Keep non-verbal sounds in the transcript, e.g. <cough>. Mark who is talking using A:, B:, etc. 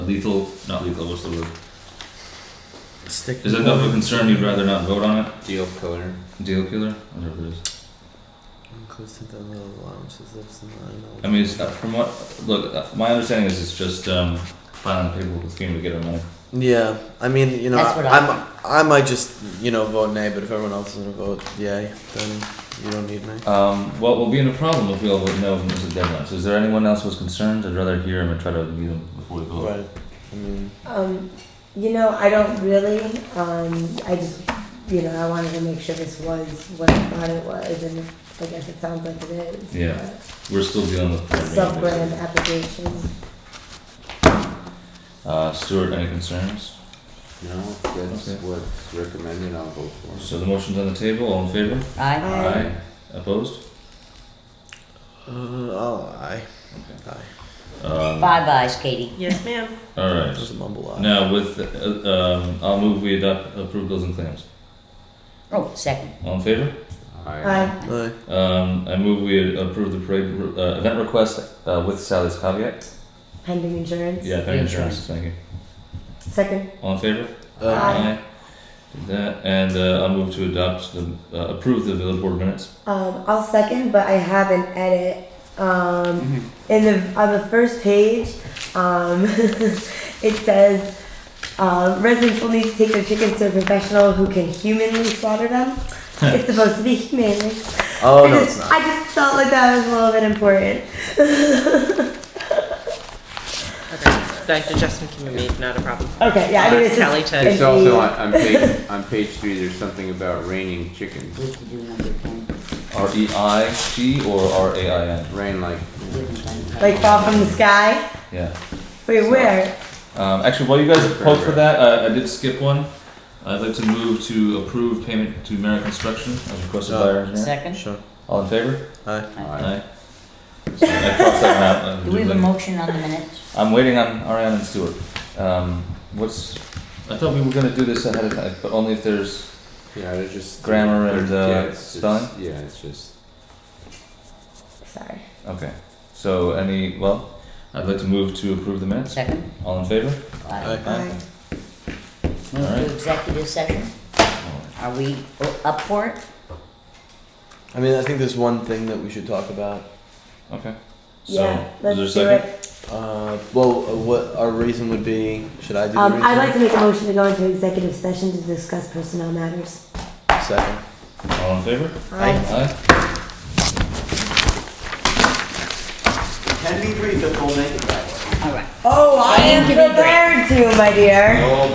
A: lethal, not lethal, what's the word?
B: Stick
A: Is that enough of a concern you'd rather not vote on it?
C: Deal killer.
A: Deal killer? Whatever it is.
B: Close to the little allowances that's in the
A: I mean, it's, uh, from what, look, uh, my understanding is it's just, um, filing the paperwork with FEMA to get our money.
B: Yeah, I mean, you know,
D: That's what I
B: I'm, I might just, you know, vote nay, but if everyone else is gonna vote yay, then you don't need me.
A: Um, well, we'll be in a problem if we all vote no and miss the deadline. So is there anyone else who's concerned? I'd rather hear them and try to meet them before we vote.
B: Right. I mean,
D: Um, you know, I don't really, um, I just, you know, I wanted to make sure this was what I thought it was, and I guess it sounds like it is.
A: Yeah. We're still dealing with.
D: but Sub-brand application.
A: Uh, Stuart, any concerns?
C: No, that's
A: Okay.
C: what's recommended. I'll vote for it.
A: So the motion's on the table, all in favor?
D: Aye. Aye.
A: Opposed?
B: uh, I'll aye.
A: Okay.
B: Aye.
A: Um,
D: Bye, byes, Katie.
E: Yes, ma'am.
A: alright,
B: That was a mumble aye.
A: now with, uh, um, I'll move we adopt, approve bills and claims.
F: Oh, second.
A: All in favor?
C: Aye.
D: Aye.
B: Aye.
A: Um, I move we approve the parade, uh, event request, uh, with Sally's caveat.
D: Pending insurance.
A: Yeah, thank you, insurance, thank you.
D: Second.
A: All in favor?
B: Aye.
D: Aye.
A: Did That, and, uh, I'll move to adopt the, uh, approve the village board minutes.
D: Um, I'll second, but I have an edit. Um,
A: Mm-hmm.
D: in the, on the first page, um, <laughs> it says, uh, residents will need to take their chickens to a professional who can humanly slaughter them. It's supposed to be humanely.
B: Oh
D: I
B: no,
D: just,
B: it's not.
D: I just felt like that was a little bit important.
E: Okay. The adjustment can be made, not a problem.
D: Okay, yeah, I mean,
E: Ask
D: it's just,
E: Kelly to,
C: It's also on, on page on page three. There's something about raining chickens.
F: We have to do number ten.
A: R E I G or R A I N?
C: Rain like
F: We haven't done that.
D: like fall from the sky.
A: Yeah.
D: Wait, where?
A: Um, actually, while you guys poke for that, uh, I did skip one. I'd like to move to approve payment to American Construction as requested by our engineer.
F: Second?
B: Sure.
A: All in favor?
B: Aye.
C: aye.
A: Aye. So I crossed that one out.
F: Do we have a motion on the minutes?
A: I'm waiting on Ariane and Stuart. Um, what's? I thought we were gonna do this ahead of time, but only if there's.
C: Yeah, they're just
A: Grammar and, uh,
C: yeah, it's- it's-
A: spelling?
C: Yeah, it's just
D: Sorry.
A: Okay. So any? Well, I'd like to move to approve the minutes.
F: Second?
A: All in favor?
F: Aye.
B: Aye.
D: Aye.
F: Move
A: Alright.
F: to executive session? Are we o- up for it?
B: I mean, I think there's one thing that we should talk about.
A: Okay. So
D: Yeah,
A: is
D: let's
A: there a
D: do
A: second?
D: it.
B: Uh, well, uh, what our reason would be? Should I do the
D: Um,
B: reason?
D: I'd like to make a motion to go into executive session to discuss personnel matters.
B: Second.
A: All in favor?
B: Aye.
A: Aye.
G: Can be brief if we'll make it that way.
F: All right.
D: Oh, I am prepared to, my dear.